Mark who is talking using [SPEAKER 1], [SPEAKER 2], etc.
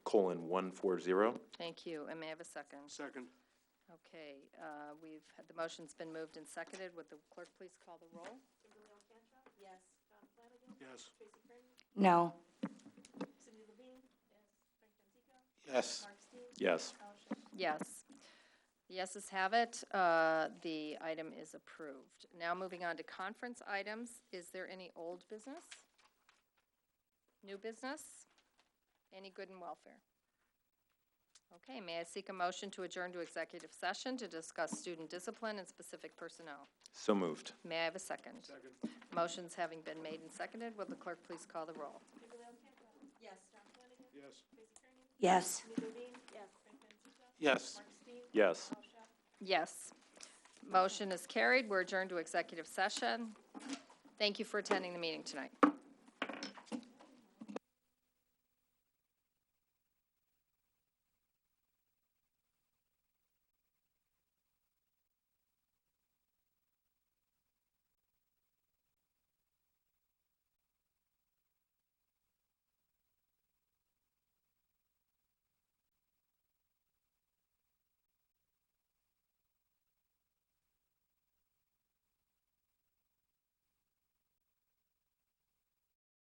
[SPEAKER 1] colon one four zero.
[SPEAKER 2] Thank you, and may I have a second?
[SPEAKER 3] Second.
[SPEAKER 2] Okay, uh, we've, had- the motion's been moved and seconded. Would the clerk please call the roll?
[SPEAKER 3] Yes.
[SPEAKER 4] No.
[SPEAKER 3] Yes.
[SPEAKER 1] Yes.
[SPEAKER 2] Yes. The Yeses have it. Uh, The item is approved. Now moving on to conference items. Is there any old business? New business? Any good and welfare? Okay, may I seek a motion to adjourn to executive session to discuss student discipline and specific personnel?
[SPEAKER 1] So moved.
[SPEAKER 2] May I have a second? Second. Motion's having been made and seconded. Will the clerk please call the roll?
[SPEAKER 3] Yes.
[SPEAKER 4] Yes.
[SPEAKER 3] Yes.
[SPEAKER 1] Yes.
[SPEAKER 2] Yes. Motion is carried. We're adjourned to executive session. Thank you for attending the meeting tonight.